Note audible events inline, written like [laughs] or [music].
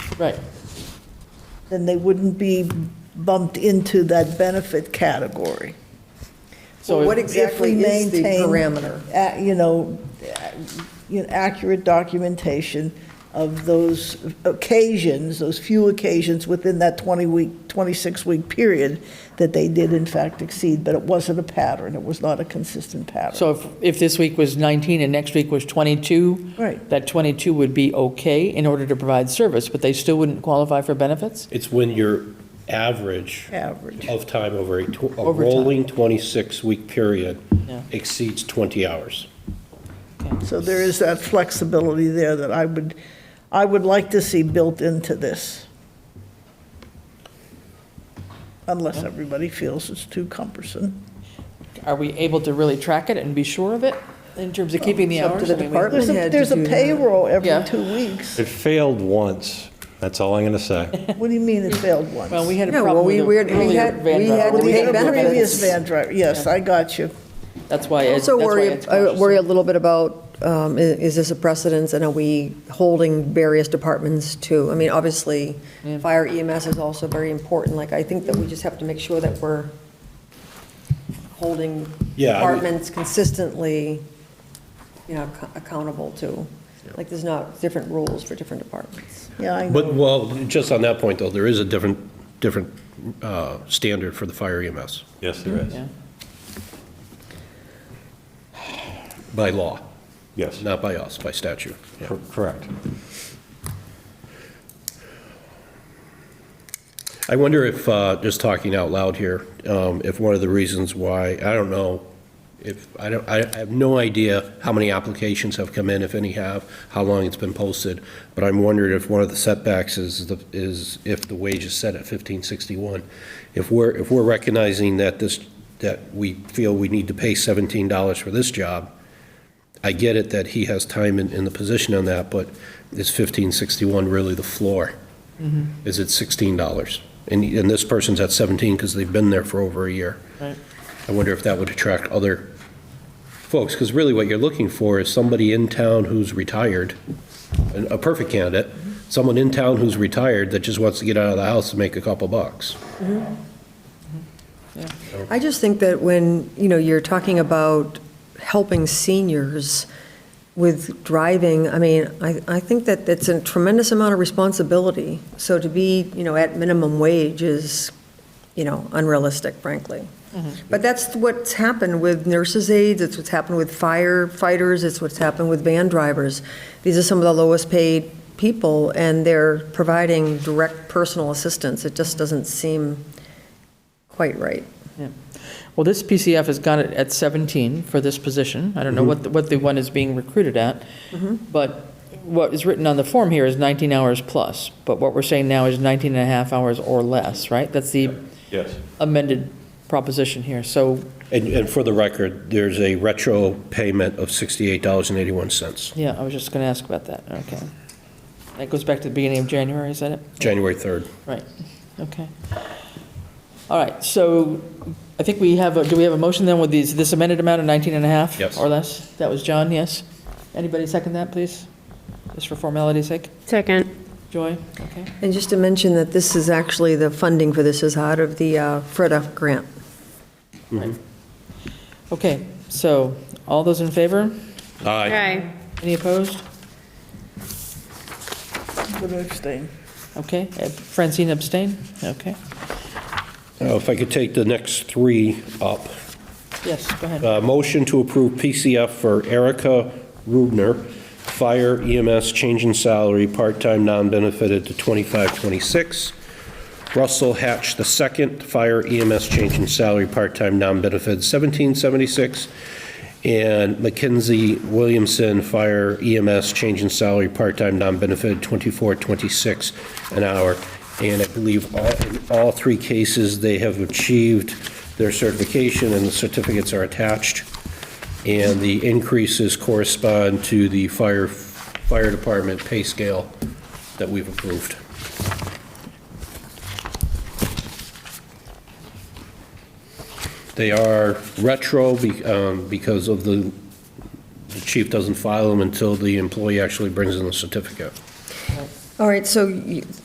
Right. then they wouldn't be bumped into that benefit category. So What if- If we exactly is the maintain, parameter? uh, You know, uh, you know, accurate documentation of those occasions, those few occasions within that 20-week, 26-week period that they did in fact exceed, but it wasn't a pattern, it was not a consistent pattern. so if, if this week was 19 and next week was 22, Right. that 22 would be okay in order to provide service, but they still wouldn't qualify for benefits? It's when your average Average. of time over a tw- a Overtime. rolling 26-week period Yeah. exceeds 20 hours. So there is that flexibility there that I would, I would like to see built into this. Unless everybody feels it's too cumbersome. Are we able to really track it and be sure of it in terms of keeping the It's up hours? to the I mean, we- Oh, department. There's a, had to there's a do that. payroll Yeah. every two weeks. [laughs] It failed once. That's all I'm going to say. What do you mean it failed once? Well, we had a No, well, problem with the we- we- we earlier had- van we driver. had Well, to we pay had a previous benefits. van driver, yes, I got you. That's why. I- Also that's why worry, it's I cautious. worry a little bit about, um, i- is this a precedence, and are we holding various departments to? I mean, obviously, fire EMS is also very important, like, I think that we just have to make sure that we're holding Yeah, I mean- departments consistently, you know, ac- accountable to, like, there's not different rules for different departments. Yeah, I But, know. well, just on that point, though, there is a different, different uh, standard for the fire E EMS Yes, there is. Yeah. by law, Yes. not by us, by statute. Yeah. Cor- Correct. I wonder if, uh, just talking out loud here, um, if one of the reasons why, I don't know, if, I don't, I I have no idea how many applications have come in, if any have, how long it's been posted, but I'm wondering if one of the setbacks is, the is if the wage is set at 1561. If we're, if we're recognizing that this, that we feel we need to pay $17 for this job, I get it that he has time in, in the position on that, but is 1561 really the floor? Is it $16? And, and this person's at 17 because they've been there for over a year. Right. I wonder if that would attract other folks, because really what you're looking for is somebody in town who's retired, an- a perfect candidate, someone in town who's retired that just wants to get out of the house and make a couple bucks. I just think that when, you know, you're talking about helping seniors with driving, I mean, I, I think that it's a tremendous amount of responsibility. So to be, you know, at minimum wage is, you know, unrealistic, frankly. But that's what's happened with nurses' aides, it's what's happened with firefighters, it's what's happened with van drivers. These are some of the lowest-paid people, and they're providing direct personal assistance. It just doesn't seem quite right. Well, this PCF has got it at 17 for this position. I don't Mm-hmm. know what, the- what the one is being recruited at, but what is written on the form here is 19 hours plus, but what we're saying now is 19 and a half hours or less, right? That's the Yes. amended proposition here, so, And, and for the record, there's a retro payment of $68.81, yeah, I was just going to ask about that, okay. That goes back to the beginning of January, is that it? January 3rd. Right, okay. All right, so I think we have, a- do we have a motion then with these, this amended amount of 19 and a half? Yes. Or less? That was John, yes? Anybody second that, please? Just for formality's sake? Second. Joy? Okay. And just to mention that this is actually, the funding for this is out of the uh, FREDA grant. Right. Okay, so, all those in favor? Aye. Any opposed? Would abstain. Okay, Uh, Francine abstain? Okay, Now, if I could take the next three up. yes, go ahead. Uh, Motion to approve PCF for Erica Rubner, Fire EMS, change in salary, part-time, non-benefited to 2526. Russell Hatch the second, Fire EMS, change in salary, part-time, non-benefited, 1776. And Mackenzie Williamson, Fire EMS, change in salary, part-time, non-benefited, 2426 an hour. And I believe all, in all three cases, they have achieved their certification, and the certificates are attached. And the increases correspond to the fire, fire department pay scale that we've approved. They are retro be- um, because of the, the chief doesn't file them until the employee actually brings in the certificate. All right, so you-